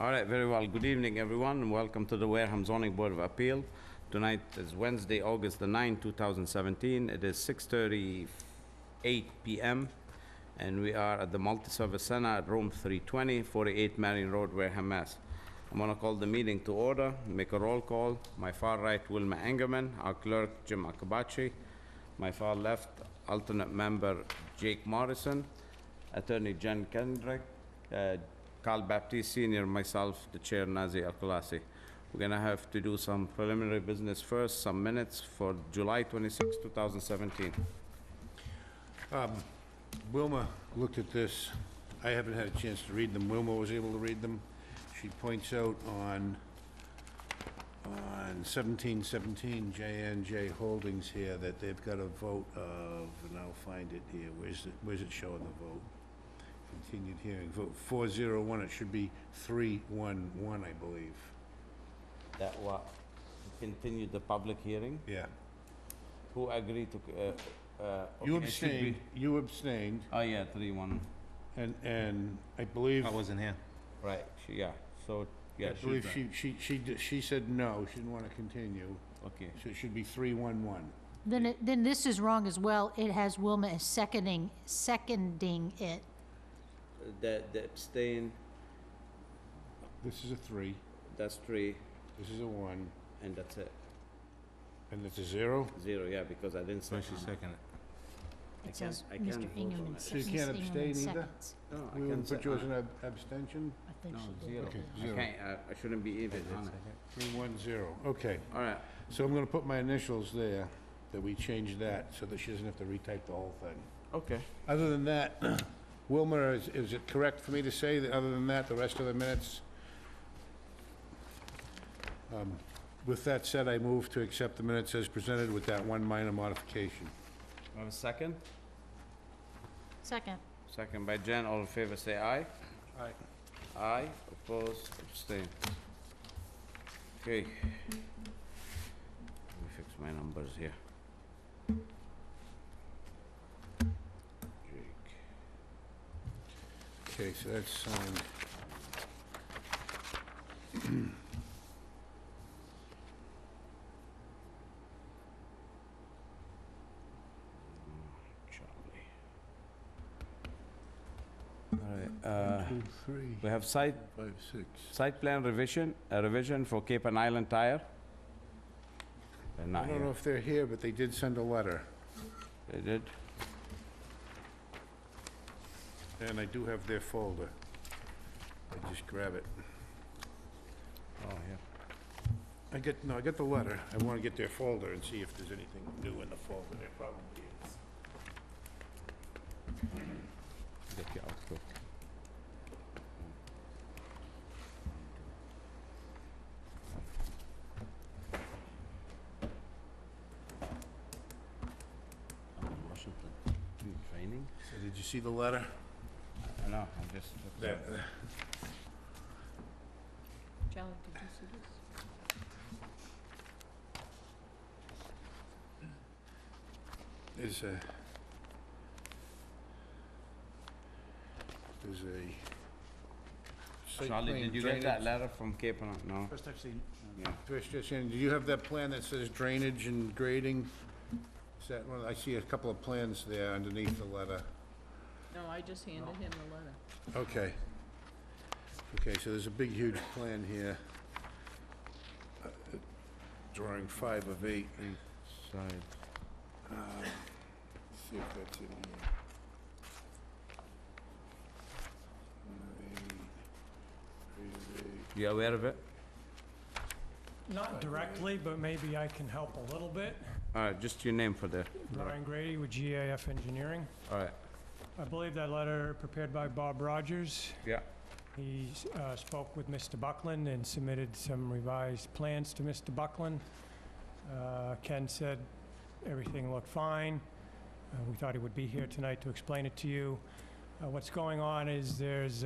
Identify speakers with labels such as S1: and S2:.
S1: All right, very well. Good evening, everyone, and welcome to the Wareham Zoning Board of Appeal. Tonight is Wednesday, August the 9th, 2017. It is 6:38 PM, and we are at the Multi-Service Center at Room 320, 48 Marion Road, Wareham, Mass. I'm gonna call the meeting to order, make a roll call. My far right, Wilma Engerman, our clerk, Jim Akabachi. My far left, alternate member, Jake Morrison. Attorney Jen Kendrick, uh, Carl Baptiste Senior, myself, the Chair Nazi Al Khelaifi. We're gonna have to do some preliminary business first, some minutes for July 26, 2017.
S2: Wilma looked at this. I haven't had a chance to read them. Wilma was able to read them. She points out on, on seventeen seventeen JNJ Holdings here that they've got a vote of, and I'll find it here. Where's it, where's it showing the vote? Continued hearing, vote four zero one. It should be three one one, I believe.
S1: That what, continue the public hearing?
S2: Yeah.
S1: Who agreed to, uh, uh...
S2: You
S1: okay, it should be-
S2: abstained, you abstained,
S1: Oh, yeah, three, one,
S2: and, and I believe.
S3: I wasn't here.
S1: right, she- yeah, so, yeah,
S2: I
S1: she's
S2: believe
S1: right.
S2: she, she, she, d- she said no, she didn't want to continue.
S1: Okay,
S2: So it should be 311.
S4: Then it, then this is wrong as well. It has Wilma as seconding, seconding it.
S1: the, the abstain,
S2: This is a 3,
S1: that's three,
S2: this is a 1,
S1: and that's it,
S2: and it's a 0?
S1: zero, yeah, because I didn't say...
S3: So she seconded.
S1: I
S4: It says
S1: can't- I
S4: Mr.
S1: can't vote
S4: Ingham
S1: on
S4: in
S1: it.
S2: So you can't
S4: Mr. Ingham in
S2: abstain either?
S4: seconds.
S1: No, I
S2: We
S1: can
S2: would
S1: say-
S2: put you as an ab- abstention?
S4: I think
S1: No,
S4: she did.
S1: zero. I
S2: Okay, zero.
S1: can't, I- I shouldn't be even on it.
S2: 310, okay.
S1: All right,
S2: So I'm going to put my initials there, that we change that, so that she doesn't have to retype the whole thing.
S1: okay.
S2: Other than that, Wilma, is, is it correct for me to say that, other than that, the rest of the minutes? Um, With that said, I move to accept the minutes as presented with that one minor modification.
S1: I have a second?
S4: Second.
S1: Second by Jen, all in favor, say aye.
S2: Aye.
S1: Aye, opposed, abstain. Okay. Let me fix my numbers here. Jake.
S2: Okay, so that's signed.
S1: Charlie. All right, uh, we have site,
S2: Five, six.
S1: site plan revision, a revision for Cape and Island Tire. They're
S2: I
S1: not
S2: don't know
S1: here.
S2: if they're here, but they did send a letter,
S1: They did?
S2: and I do have their folder. I just grab it.
S1: Oh, yeah.
S2: I get, no, I got the letter. I want to get their folder and see if there's anything new in the folder. There probably is.
S1: Get you out quick. I'm in Washington, doing training.
S2: So did you see the letter? uh,
S1: I know, I'm just.
S2: There.
S4: Charlie, did you see this?
S2: There's a... There's a... site
S1: Charlie,
S2: plan
S1: did you get that
S2: drainage-
S1: letter from Cape and, no?
S3: First I've seen.
S1: Yeah.
S2: Trish, just in, do you have that plan that says drainage and grading? Is that one, I see a couple of plans there underneath the letter.
S5: No, I just handed him the letter.
S2: Okay. Okay, so there's a big, huge plan here. Drawing five of eight.
S1: Side.
S2: See if that's in here.
S1: You aware of it?
S6: Not directly, but maybe I can help a little bit.
S1: All right, just your name for the,
S6: Brian Grady with GAF Engineering.
S1: all right,
S6: I believe that letter prepared by Bob Rogers.
S1: yeah.
S6: He uh, spoke with Mr. Buckland and submitted some revised plans to Mr. Buckland. Uh, Ken said everything looked fine. Uh, We thought he would be here tonight to explain it to you. Uh, What's going on is there's